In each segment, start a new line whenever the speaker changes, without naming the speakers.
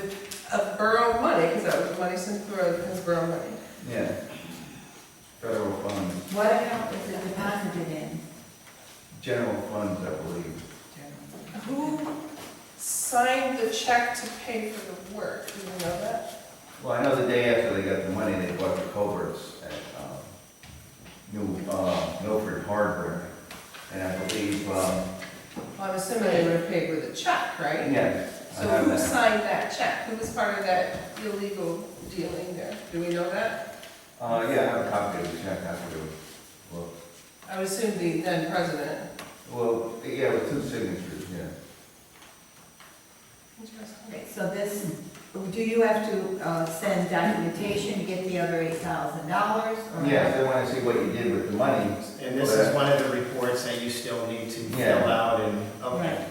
with, of borough money, because that was money since borough, because borough money.
Yeah. Federal funds,
What account is it deposited in?
general funds, I believe.
Who signed the check to pay for the work, do you know that?
Well, I know the day after they got the money, they bought the culverts at, um, New, uh, Milford Hardware. And I believe, um,
Well, I'm assuming they would have paid with a check, right?
yeah. I
So
have
who
that.
signed that check? Who was part of that illegal dealing there? Do we know that?
Uh, yeah, I have a copy of the check after, well,
I would assume the then president.
well, yeah, with two signatures, yeah.
Interesting.
Okay, so this, do you have to uh, send documentation to get the other eight thousand dollars?
Yeah, if they wanna see what you did with the money,
And this is one of the reports that you still need to
Yeah.
fill out and, okay,
Right,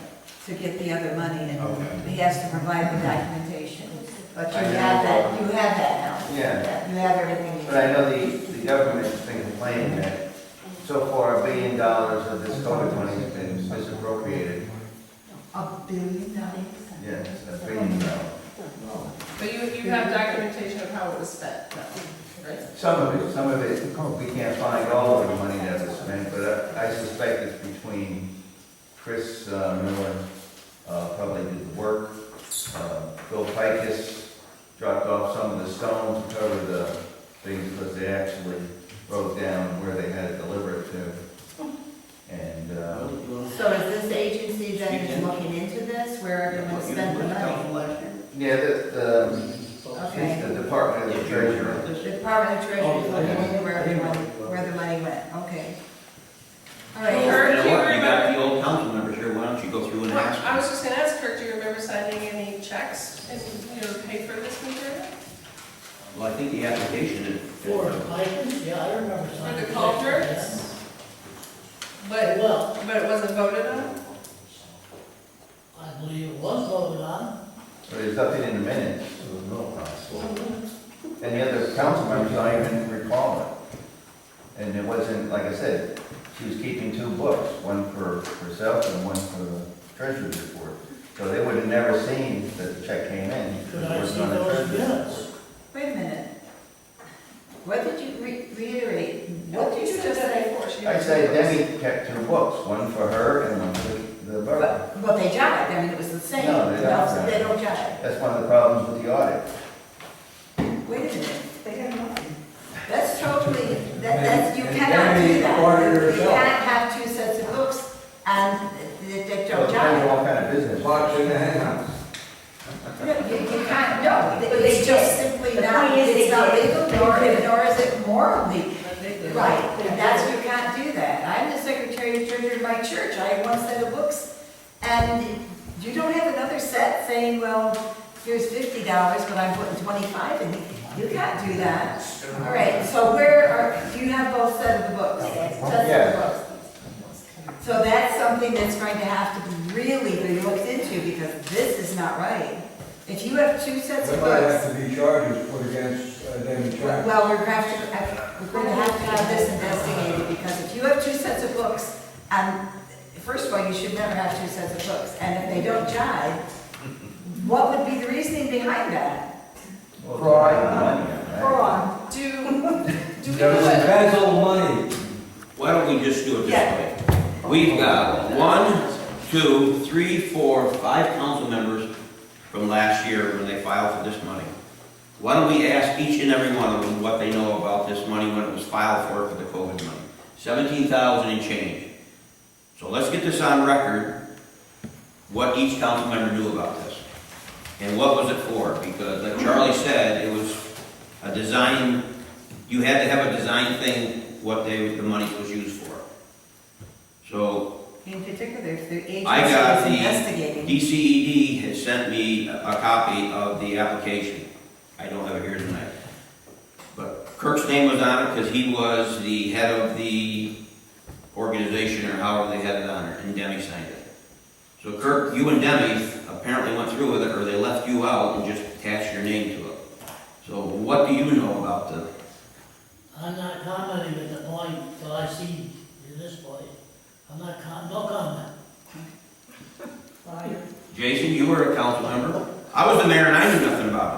to get the other money, and
Okay.
he has to provide the documentation, but you
I
have
know.
that, you have that now.
yeah.
You have everything. you
But I know the, the government has been complaining that so far a billion dollars of this COVID money has been misappropriated.
A billion dollars?
Yes, a billion dollars.
But you, you have documentation of how it was spent, though, right?
Some of it, some of it, we can't find all of the money that was spent, but I I suspect it's between Chris uh, Miller, uh, probably did the work, uh, Bill Pikus dropped off some of the stones to cover the things, because they actually wrote down where they had it delivered to. And, uh,
So is this agency that is looking into this, where everyone spent the money?
yeah, the, the
Okay.
It's the Department of the Treasury.
The Department of Treasury
Oh,
is looking into where everyone, where the money went, okay. All
Well,
right,
Eric,
You know
do you
what? You got
remember-
the old council members here, why don't you go through and ask
I
them?
was just gonna ask Kirk, do you remember signing any checks and, you know, pay for this material?
Well, I think the application is.
Four, I, yeah, I remember
For
signing.
the
it.
culverts? But,
Well,
but it wasn't voted on?
I believe it was voted on.
But there's nothing in the minutes. And the other council members, I even recall it. And it wasn't, like I said, she was keeping two books, one for herself and one for the treasurer's report. So they would have never seen that the check came in. because
Could
it
I
wasn't
see
on the
those
treasurer's
minutes?
wait a minute. What did you re- reiterate? What did you just
that
say?
before? She
report. I
was-
say Debbie kept two books, one for her and one for the borough.
But, but they jived, I mean, it was the same.
No, they don't jive.
They don't jive.
That's one of the problems with the audit.
Wait a minute, they got nothing. That's totally, that, that's, you cannot do
Maybe
that.
order
You
yourself.
can't have two sets of books and that they
So
don't
it's kind of
jive.
all kind of business.
Lots in the henhouse.
No, you, you can't, no,
But
they-
they
it's just simply
the
not,
point is
it's
they
not
did.
legal, nor, nor is it morally
But they did.
Right, and that's, you can't do that. I'm the secretary and treasurer of my church, I have one set of books, and you don't have another set saying, well, here's fifty dollars, but I'm putting twenty-five in. You can't do that. All right, so where are, do you have both set of the books? Sets of the books. So that's something that's going to have to be really be looked into, because this is not right. If you have two sets
There
of
might
books,
have to be charges put against uh, them in charge.
well, we're going to have to, we're going to have to have this investigated, because if you have two sets of books, and, first of all, you should never have two sets of books, and if they don't jive, what would be the reasoning behind that?
Well,
Fraud.
right?
Fraud.
Do, do we
There
know
was
what,
embezzled money.
Why don't we just do it this
Yeah.
way? We've got one, two, three, four, five council members from last year when they filed for this money. Why don't we ask each and every one of them what they know about this money when it was filed for, for the COVID money? Seventeen thousand and change. So let's get this on record, what each council member knew about this. And what was it for? Because like Charlie said, it was a design, you had to have a design thing, what they, the money was used for. So
In particular, if the agency
I got
is
the
investigating.
DCED E has sent me a a copy of the application. I don't have it here tonight. But Kirk's name was on it because he was the head of the organization or however they had it on it, and Demi signed it. So Kirk, you and Demi apparently went through with it, or they left you out and just attached your name to it. So what do you know about the,
I'm not commenting at the point that I see at this point. I'm not, com- no comment.
Jason, you were a council member? I was the mayor and I knew nothing